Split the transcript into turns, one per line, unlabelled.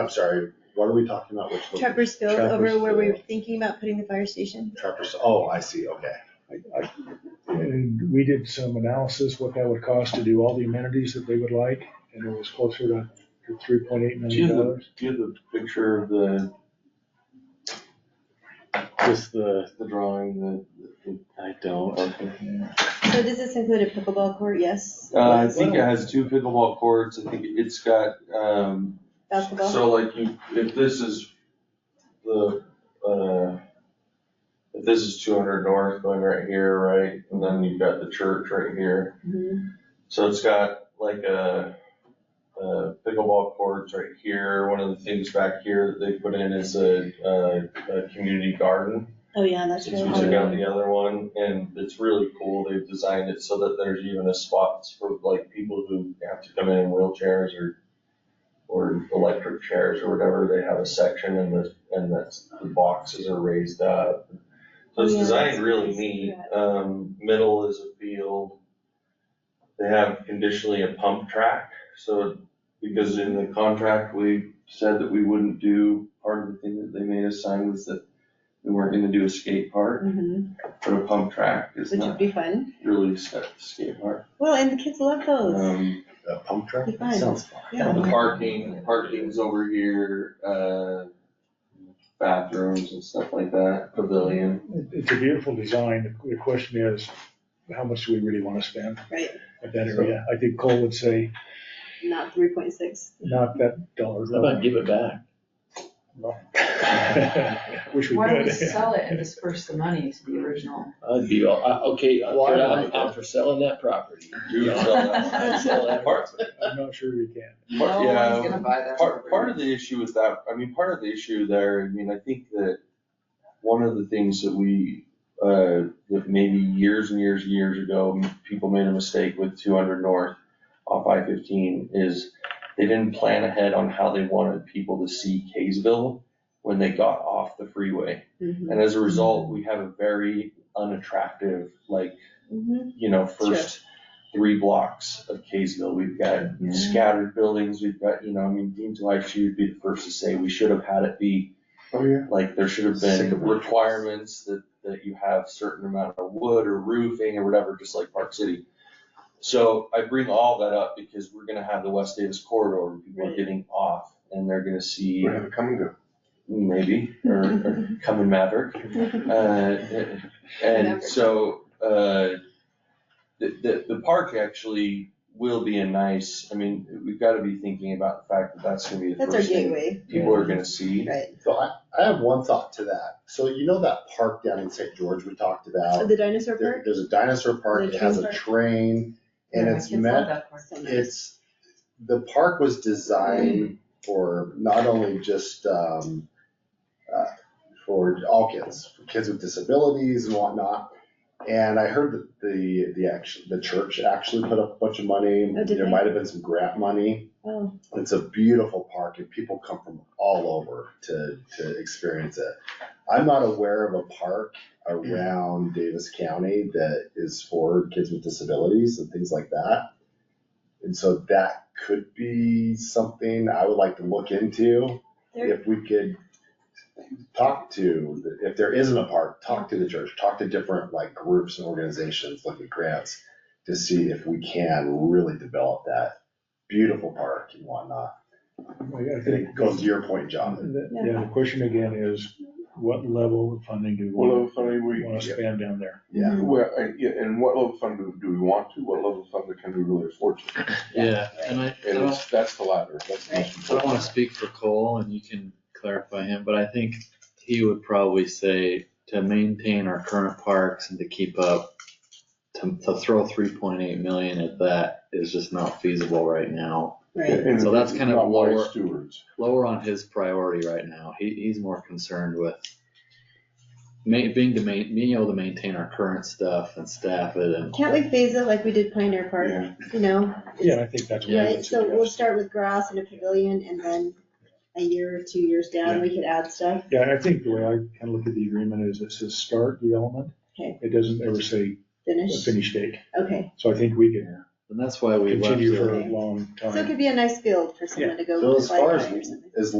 I'm sorry, what are we talking about? Which one?
Trevor's Field over
Trevor's
where we were
Field.
thinking about putting the fire station.
Trappers, oh, I see, okay.
I- I- And we did some analysis, what that would cost to do all the amenities that they would like, and it was closer to three point eight
Do you
million
have
dollars.
the, do you have the picture of the, just the, the drawing, the, the?
I don't.
So does this include a pickleball court? Yes.
Uh, I think it has two pickleball courts, I think it's got, um,
Basketball.
so like you, if this is the, uh, if this is two hundred north going right here, right, and then you've got the church right here.
Mhm.
So it's got like a, uh pickleball courts right here. One of the things back here that they put in is a, a, a community garden.
Oh, yeah, that's
Since
really
we took out the other one and it's really cool. They've designed it so that there's even a spot for like people who have to come in in wheelchairs or, or electric chairs or whatever. They have a section and the, and that's, the boxes are raised up. So it's
Oh, Yeah,
designed
that's
really
nice.
neat.
Yeah.
Um, middle is a field. They have conditionally a pump track, so because in the contract, we said that we wouldn't do, part of the thing that they made us sign was that we weren't gonna do a skate park,
Mhm.
but a pump track is
Which would
not
be fun.
really set to skate park.
Well, and the kids love those.
Um,
The pump track?
Be fun.
Sounds fun.
Yeah.
the parking, parking's over here, uh, bathrooms and stuff like that, pavilion.
It- It's a beautiful design. The question is, how much do we really want to spend
Right,
at that area? I think Cole would say,
not three point six.
not that dollar.
How about give it back?
Oh,
Wish we
Why don't we
could.
sell it and disperse the money to the original?
I'd be all, I, okay, I'm,
Why
I'm
not?
I'm for selling that property.
You would sell that.
I'd sell that
Part-
property.
I'm not sure we can.
No
Part- yeah,
one's gonna buy that.
Part, part of the issue with that, I mean, part of the issue there, I mean, I think that one of the things that we, uh, that maybe years and years and years ago, m- people made a mistake with two hundred north off I fifteen is they didn't plan ahead on how they wanted people to see Kaysville when they got off the freeway.
Mhm.
And as a result, we have a very unattractive, like,
Mhm.
you know, first three blocks of Kaysville, we've got scattered buildings, we've got, you know, I mean, Dean's wife, she would be the first to say, we should have had it be,
Oh, yeah.
like, there should have
Sick of
been
my-
requirements that, that you have certain amount of wood or roofing or whatever, just like Park City. So I bring all that up because we're gonna have the West Davis corridor, and people are
Right.
getting off, and they're gonna see,
We're having come and go.
maybe, or, or come in Maverick, uh, And
Never.
so, uh, the, the, the park actually will be a nice, I mean, we've gotta be thinking about the fact that that's gonna be the
That's our
first thing
gateway,
people are gonna see.
right.
So I, I have one thought to that. So you know that park down in St. George we talked
So
about?
Oh, The dinosaur
There,
park?
there's a dinosaur park,
The
it has
train
a
park?
train, and
Yeah, my
it's
kids
meant
love that part.
So nice.
it's, the park was designed for not only just, um, uh, for all kids, for kids with disabilities and whatnot. And I heard that the, the action, the church actually put up a bunch of money.
Oh, did
There
they?
might have been some grant money.
Oh,
It's a beautiful park and people come from all over to, to experience it. I'm not aware of a park around Davis County that is for kids with disabilities and things like that. And so that could be something I would like to look into.
There-
If we could talk to, the- if there isn't a park, talk to the church, talk to different like groups and organizations, look at grants to see if we can really develop that beautiful park and whatnot.
I
I think
think
it goes to your point, John.
The-
Yeah.
Yeah, the question again is, what level of funding do we want
funding
to spend down there?
Yeah.
Well, I- yeah, and what level of funding do- do we want to, what level of funding can we really afford to?
Yeah, and I, I
And
don't,
it's, that's the latter, that's the most
I don't wanna
important.
speak for Cole and you can clarify him, but I think he would probably say to maintain our current parks and to keep up, to, to throw three point eight million at that is just not feasible right now.
right.
And
So that's kind of
not wise
lower-
Stewards.
lower on his priority right now. He, he's more concerned with ma- being to ma- being able to maintain our current stuff and staff it and.
Can't we phase it like we did Pioneer Park,
Yeah,
you know?
Yeah, I think that's. what I would
Right, so we'll
suggest.
start with grass and a pavilion and then a year or two years down, we could add stuff.
Yeah, I think the way I kind of look at the agreement is it says start development.
Okay.
It doesn't ever say a
Finish,
finish date.
okay.
So I think we could
And that's why we left
continue for
it.
a long
So it
time.
could be a nice field for someone to go
So as
play
far
on or
as-
something.
As